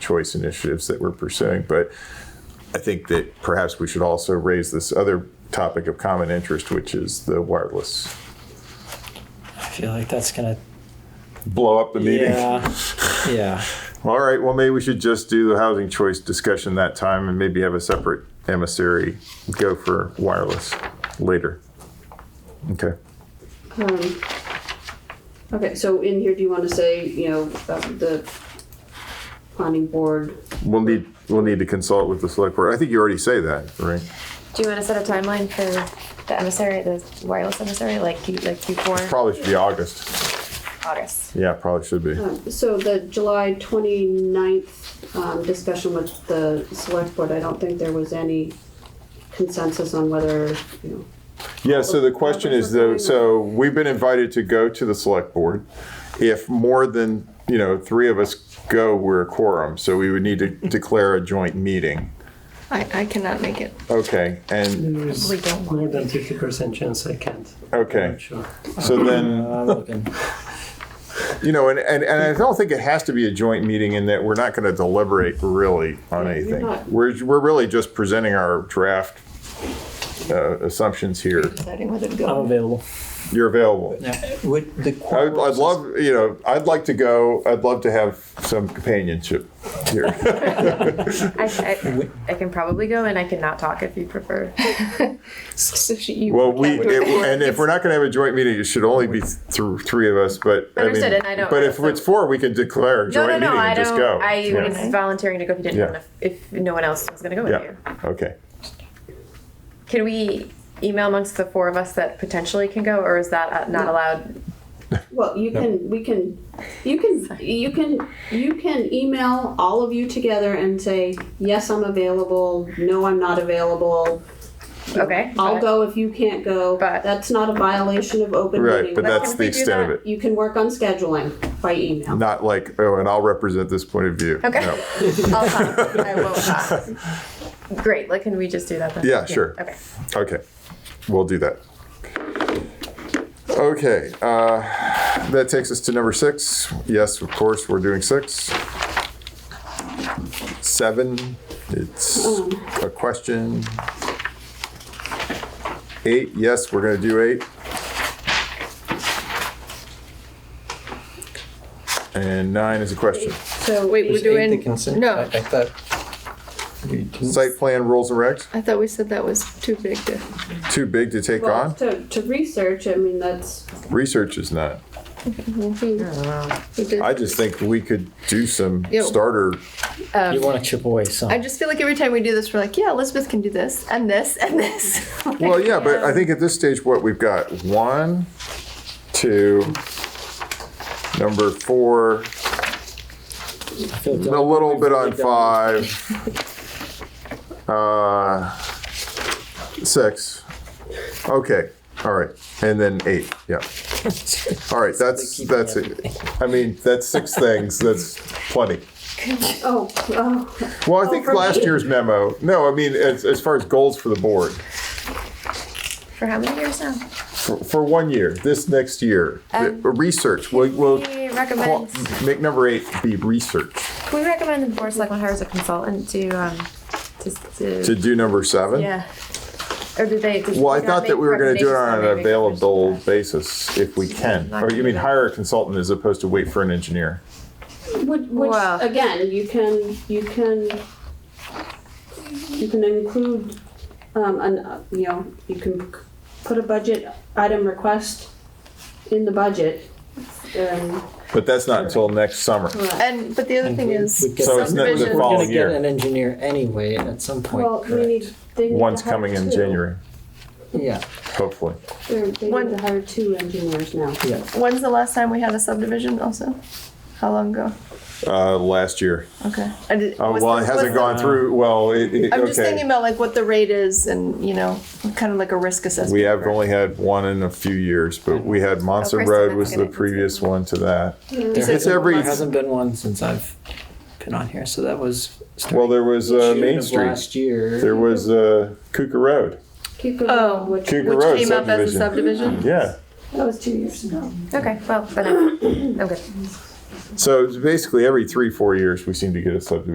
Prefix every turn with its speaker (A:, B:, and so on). A: choice initiatives that we're pursuing. But I think that perhaps we should also raise this other topic of common interest, which is the wireless.
B: I feel like that's gonna.
A: Blow up the meeting.
B: Yeah. Yeah.
A: All right, well, maybe we should just do the housing choice discussion that time and maybe have a separate emissary go for wireless later. Okay.
C: Um, Okay, so in here, do you want to say, you know, uh, the planning board?
A: We'll need, we'll need to consult with the select board. I think you already say that, right?
D: Do you want to set a timeline for the emissary, the wireless emissary, like you- like before
A: Probably should be August.
D: August?
A: Yeah, probably should be.
C: um, So the July 29th um, discussion with the select board, I don't think there was any consensus on whether, you know,
A: Yeah, so the question is though, so we've been invited to go to the select board. If more than, you know, three of us go, we're a quorum, so we would need to declare a joint meeting.
D: I, I cannot make it.
A: Okay, and,
E: There
D: We
E: is
D: don't want
E: more than fifty percent chance I can't.
A: okay,
E: Sure.
A: so then.
B: Uh, I'm looking.
A: You know, and, and, and I don't think it has to be a joint meeting in that we're not going to deliberate really on anything.
C: not.
A: We're, we're really just presenting our draft uh, assumptions here.
D: deciding whether to
B: I'm
D: go.
B: available.
A: You're available.
B: Now, would the
A: I,
B: quorum
A: would- I'd love, you know, I'd like to go, I'd love to have some companionship here.
D: I, I, I can probably go and I cannot talk if you prefer. so she, you
A: Well, we,
D: can't do
A: it, and if we're not going to have a joint meeting, it should only be through three of us, but. I mean,
D: Understood, and I don't-
A: But if it's four, we can declare a
D: No,
A: joint
D: no,
A: meeting
D: no. I
A: and just
D: don't.
A: go.
D: I
A: Yeah.
D: was volunteering to go if you didn't.
A: Yeah.
D: want to- If, no one else was going to go with
A: Yeah,
D: you,
A: okay.
D: can we email amongst the four of us that potentially can go, or is that uh, not allowed?
C: Well, you can, we can, you can, you can, you can email all of you together and say, yes, I'm available, no, I'm not available.
D: Okay.
C: I'll
D: but-
C: go if you can't go.
D: But-
C: That's not a violation of open
A: Right,
C: meeting.
A: but
D: But
A: that's
D: can
A: the
D: we do
A: extent of
D: that?
A: it.
C: You can work on scheduling by email.
A: Not like, oh, and I'll represent this point of view.
D: Okay.
A: No.
D: I'll talk. I won't talk. Great. Like, can we just do that then?
A: Yeah, sure.
D: Okay.
A: Okay, we'll do that. Okay, uh, that takes us to number six. Yes, of course, we're doing six. Seven, it's a question. Eight, yes, we're gonna do eight. And nine is a question.
C: So
F: Wait, we're
G: Is eight the
F: doing,
G: consent?
F: no.
G: I, I thought we didn't.
A: Site plan rules and regs,
F: I thought we said that was too big to,
A: too big to take
C: well,
A: on?
C: to, to research, I mean, that's,
A: Research is not.
F: who,
D: Hmm.
F: who did-
A: I just think we could do some
F: Yeah.
A: starter.
B: you want to chip away some?
F: I just feel like every time we do this, we're like, yeah, Elizabeth can do this and this and this. Like,
A: Well, yeah, but I think at this stage, what we've got one, two, number four,
B: I feel like
A: a little bit on five, uh, six. Okay. All right. And then eight. Yeah. All right. That's, that's it. I mean, that's six things. That's plenty.
C: oh, oh,
A: Well, I think
C: for
A: last
C: me.
A: year's memo, no, I mean, as, as far as goals for the board,
D: For how many years now?
A: for, for one year, this next year, the-
D: Um,
A: research, we'll, we'll
D: We
A: Well,
D: recommend.
A: make number eight be research.
D: We recommend the board of selectmen hire as a consultant to um to, to,
A: To do number seven?
D: yeah. Or did they? Did
A: Well, I
D: they not
A: thought that
D: make
A: we were gonna do it on an
D: recommendations? They made
A: available
D: recommendations.
A: basis if we can. Or you mean hire a consultant as opposed to wait for an engineer?
C: which, which
D: Wow.
C: again, you can, you can, you can include, um, an, uh, you know, you can put a budget item request in the budget. Um,
A: But that's not until next summer.
F: And, but the other thing is,
B: We'd get
A: So it's not the
F: Subdivision.
B: We're gonna
A: following
B: get
A: year.
B: an engineer anyway at some point.
C: well, we
B: correct?
C: need, they need to
A: One's
C: hire
A: coming in
C: two.
A: January,
B: Yeah,
A: hopefully.
C: They're- They
F: One-
C: need to hire two engineers now.
B: yeah.
F: when's the last time we had a subdivision also? How long ago?
A: Uh, last year.
F: Okay. I did-
A: Uh,
F: was
A: well,
F: the-
A: it
F: was
A: hasn't
F: the-
A: gone through, well, it, it,
F: I'm just thinking
A: okay.
F: about like what the rate is and, you know, kind of like a risk assessment.
A: We have only had one in a few years, but we had Monson
D: Oh, Kristen,
A: Road
D: that's
A: was the
D: gonna be-
A: previous one to that.
B: There
A: It's
B: hasn't-
A: every-
B: There hasn't been one since I've been on here, so that was. starting
A: Well, there was, uh,
B: June
A: Main
B: of
A: Street.
B: Last year.
A: There was, uh, Kuka Road.
C: Cuckoo,
F: Oh.
C: which
A: Cougar
F: Which
A: Road
F: came up as a subdivision?
A: Yeah.
C: that was two years ago.
D: Okay, um, well, then I'm I'm good.
A: So it's basically every three, four years, we seem to get a subdivision